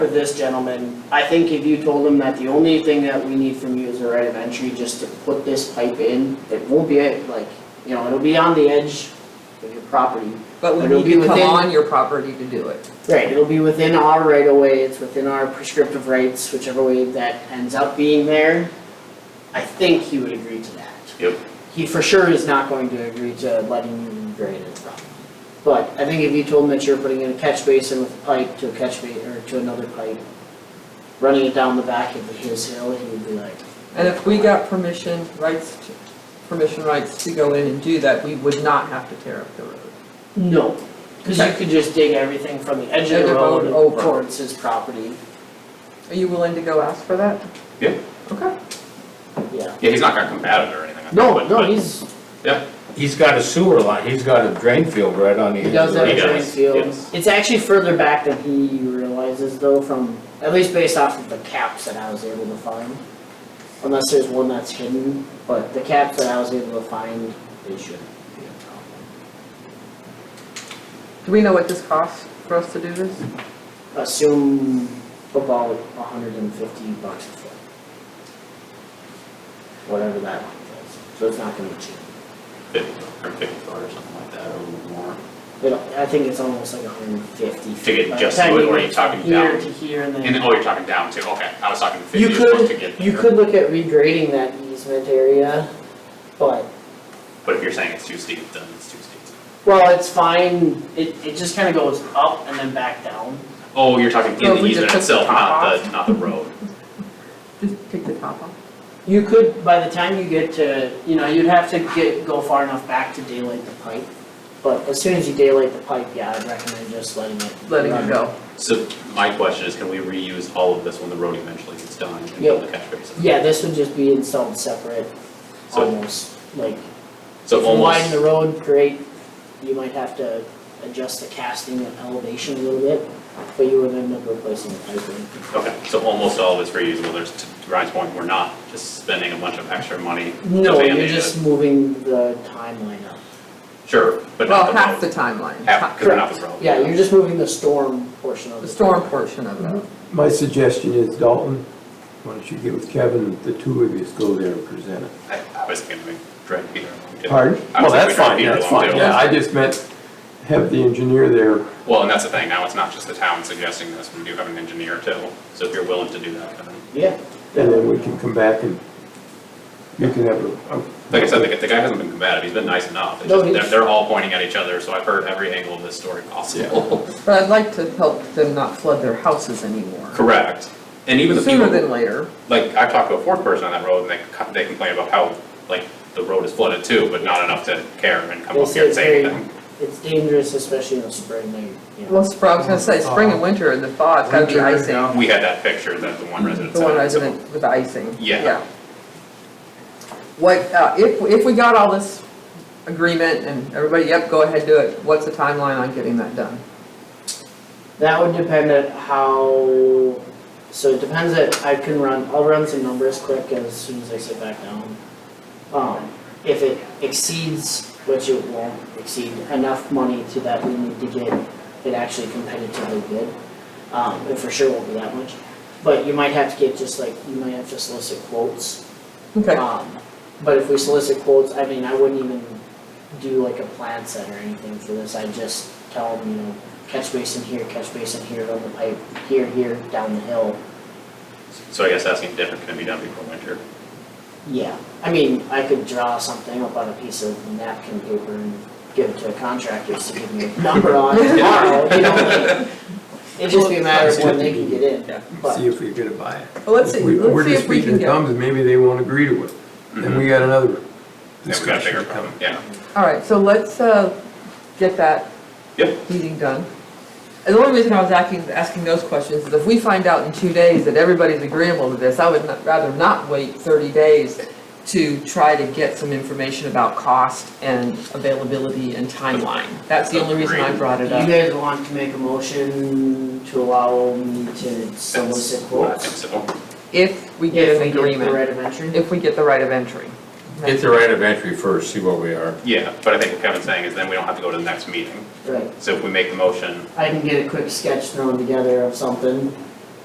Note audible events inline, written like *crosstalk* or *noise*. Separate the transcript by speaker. Speaker 1: for this gentleman, I think if you told him that the only thing that we need from you is a right of entry, just to put this pipe in, it won't be at, like, you know, it'll be on the edge of your property.
Speaker 2: But
Speaker 1: But
Speaker 2: we
Speaker 1: it'll
Speaker 2: need
Speaker 1: be
Speaker 2: to come
Speaker 1: within-
Speaker 2: on your property to do it.
Speaker 1: Right, it'll be within our right of way, it's within our prescriptive rights, whichever way that ends up being there. I think he would agree to that.
Speaker 3: Yep.
Speaker 1: He for sure is not going to agree to letting you grade it from. But I think if you told him that you're putting in a catch basin with a pipe to a catch ba, or to another pipe, running it down the back of his hill, he would be like,
Speaker 2: And if we got permission rights, to- permission rights to go in and do that, we would not have to tear up the road.
Speaker 1: no. Cause you
Speaker 2: Okay.
Speaker 1: could just dig everything from the edge of
Speaker 2: Edge
Speaker 1: the
Speaker 2: of road
Speaker 1: road
Speaker 2: over.
Speaker 1: towards his property,
Speaker 2: Are you willing to go ask for that?
Speaker 3: Yeah.
Speaker 2: Okay.
Speaker 1: yeah.
Speaker 3: Yeah, he's not gonna combat it or anything. like that,
Speaker 1: No,
Speaker 3: but-
Speaker 1: no,
Speaker 3: but-
Speaker 1: he's,
Speaker 4: He's got a sewer line, he's got a drain field right on the edge
Speaker 1: He
Speaker 4: of
Speaker 1: does
Speaker 4: the
Speaker 1: have a
Speaker 3: He does,
Speaker 1: drain field.
Speaker 3: yes.
Speaker 1: It's actually further back than he realizes though from, at least based off of the caps that I was able to find. Unless there's one that's hidden, but the caps that I was able to find, they shouldn't be a problem.
Speaker 2: Do we know what this costs for us to do this?
Speaker 1: Assume about hundred and fifty bucks a foot. Whatever that one is, so it's not gonna be cheap.
Speaker 3: Fifty, or fifty-four or something like that, or more.
Speaker 1: It, I think it's almost like hundred and fifty.
Speaker 3: To get just to it, or are you talking
Speaker 1: Here
Speaker 3: down?
Speaker 1: to here and then.
Speaker 3: And, oh, you're talking down too, okay, I was talking
Speaker 1: You
Speaker 3: fifty,
Speaker 1: could-
Speaker 3: foot to get
Speaker 1: You
Speaker 3: there.
Speaker 1: could look at regrading that easement area, but,
Speaker 3: But if you're saying it's too steep, then it's too steep.
Speaker 1: well, it's fine, it, it just kinda goes up and then back down.
Speaker 3: Oh, you're talking
Speaker 2: So
Speaker 3: in
Speaker 2: if
Speaker 3: the
Speaker 2: we just
Speaker 3: easement
Speaker 2: took the
Speaker 3: itself,
Speaker 2: top
Speaker 3: not the, not the road.
Speaker 2: Just take the top off.
Speaker 1: You could, by the time you get to, you know, you'd have to get, go far enough back to daylight the pipe. But as soon as you daylight the pipe, yeah, I'd recommend just letting it.
Speaker 2: Letting
Speaker 1: run.
Speaker 2: it go.
Speaker 3: So my question is, can we reuse all of this when the road eventually gets done and build the catch basin?
Speaker 1: Yeah, this would just be installed separate,
Speaker 3: So-
Speaker 1: almost, like, if
Speaker 3: So
Speaker 1: you widen the
Speaker 3: almost,
Speaker 1: road, great, you might have to adjust the casting and elevation a little bit, but you would end up replacing the piping.
Speaker 3: okay, so almost all of it's reusable, there's, to Ryan's point, we're not just spending a bunch of extra money. to
Speaker 1: No, you're
Speaker 3: Band-Aid it.
Speaker 1: just moving the timeline up.
Speaker 3: Sure, but not
Speaker 2: Well,
Speaker 3: the
Speaker 2: half the
Speaker 3: road,
Speaker 2: timeline.
Speaker 3: half, cause we're not the road.
Speaker 1: Yeah, you're just moving the storm portion of
Speaker 2: The
Speaker 1: it.
Speaker 2: storm portion of it.
Speaker 5: My suggestion is Dalton, why don't you get with Kevin, the two of you go there and present it.
Speaker 3: I, I was thinking we drag Peter along too.
Speaker 5: Pardon?
Speaker 3: I was
Speaker 5: Well, that's
Speaker 3: thinking
Speaker 5: fine,
Speaker 3: we drag
Speaker 5: that's
Speaker 3: Peter along
Speaker 5: fine,
Speaker 3: too.
Speaker 5: yeah, I just meant have the engineer there.
Speaker 3: Well, and that's the thing, now it's not just the town suggesting this, we do have an engineer too, so if you're willing to do that, Kevin.
Speaker 1: Yeah.
Speaker 5: And then we can come back and you can have a. a-
Speaker 3: Like I said, the, guy- the guy hasn't been combative, he's been nice enough, It's
Speaker 1: No,
Speaker 3: just- they're,
Speaker 1: he's-
Speaker 3: they're all pointing at each other, so I've heard every angle of this story possible.
Speaker 2: But I'd like to help them not flood their houses anymore.
Speaker 3: *laughs* Correct, and even the
Speaker 2: Sooner
Speaker 3: people,
Speaker 2: than later.
Speaker 3: like, I've talked to a fourth person on that road, and they, co- they complain about how, like, the road is flooded too, but not enough to care and come
Speaker 1: They
Speaker 3: up here
Speaker 1: say
Speaker 3: and say
Speaker 1: it's very-
Speaker 3: anything.
Speaker 1: It's dangerous, especially in the spring, they, you know.
Speaker 2: Well, sp- I was gonna say, spring and winter, the thaw, it's gotta be
Speaker 5: Winter,
Speaker 2: icing.
Speaker 5: yeah.
Speaker 3: We had that picture that the one resident
Speaker 2: The
Speaker 3: sent.
Speaker 2: one
Speaker 3: so-
Speaker 2: resident with the icing.
Speaker 3: Yeah.
Speaker 2: What, uh, if, if we got all this agreement and everybody, yep, go ahead, do it, what's the timeline on getting that done?
Speaker 1: That would depend on how, so it depends that I can run, I'll run some numbers quick as soon as I sit back down. Um, if it exceeds, which it won't exceed, enough money to that we need to get it actually competitively bid. Um, it for sure won't be that much, but you might have to get just like, you might have to solicit quotes
Speaker 2: Okay,
Speaker 1: Um, but if we solicit quotes, I mean, I wouldn't even do like a plan set or anything for this, I'd just tell them, you know, catch basin here, catch basin here, on the pipe, here, here, down the hill.
Speaker 3: So I guess asking different can it be done before winter?
Speaker 1: Yeah, I mean, I could draw something up on a piece of napkin paper and give it to a contractor to give me a number *laughs* on tomorrow, you know, *laughs* like, it'd just be a matter of when they can get in, but.
Speaker 5: See if we're gonna buy it.
Speaker 2: well, let's see,
Speaker 5: We- We're
Speaker 2: let's see
Speaker 5: just
Speaker 2: if we
Speaker 5: speaking
Speaker 2: can
Speaker 5: in
Speaker 2: get,
Speaker 5: thumbs and maybe they won't agree to it. Then we got another
Speaker 3: Yeah, we Mm-hmm. got a
Speaker 5: discussion
Speaker 3: bigger
Speaker 5: to come.
Speaker 3: problem, yeah.
Speaker 2: all right, so let's, uh, get that
Speaker 3: Yep.
Speaker 2: meeting done. And the only reason I was asking, asking those questions is if we find out in two days that everybody's agreeable to this, I would not- rather not wait thirty days to try to get some information about cost and availability and timeline. That's the only reason I
Speaker 3: Agreed.
Speaker 2: brought
Speaker 1: You
Speaker 2: it up.
Speaker 1: guys want to make a motion to allow me to solicit
Speaker 3: That's what I
Speaker 1: quotes?
Speaker 3: think so.
Speaker 2: If we
Speaker 1: If
Speaker 2: get
Speaker 1: we
Speaker 2: an
Speaker 1: get the
Speaker 2: agreement,
Speaker 1: right of entry?
Speaker 2: if we get the right of entry.
Speaker 4: Get the right of entry first, see where we are.
Speaker 3: Yeah, but I think what Kevin's saying is then we don't have to go to the next meeting.
Speaker 1: Right,
Speaker 3: So if we make the motion,
Speaker 1: I can get a quick sketch thrown together of something,